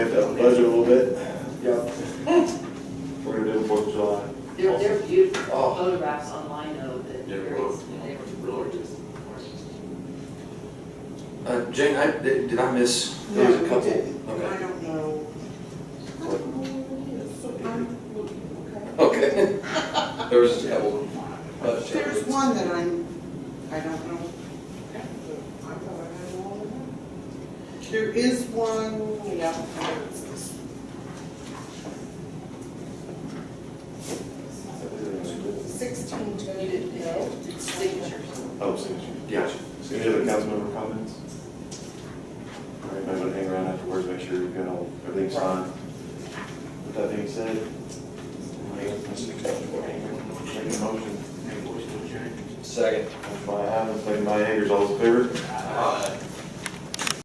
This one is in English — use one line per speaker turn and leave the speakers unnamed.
Uh, Jane, I, did did I miss, there was a
No, we
couple?
didn't. I
Okay.
don't know. I don't know what it is. I'm looking,
Okay. There was just a couple.
okay. There's one that I'm, I don't know. I thought I had all of them. There is one, yeah, I know it's this. Sixteen twenty, no, signatures.
Oh, signature.
Gotcha.
Any other council member comments? Or anybody want to hang around afterwards, make sure you've got all, everything's signed? With that being said, anybody else want to make a motion?
Second.
Motion by Adams, second by Eggers, all those in favor?
Aye.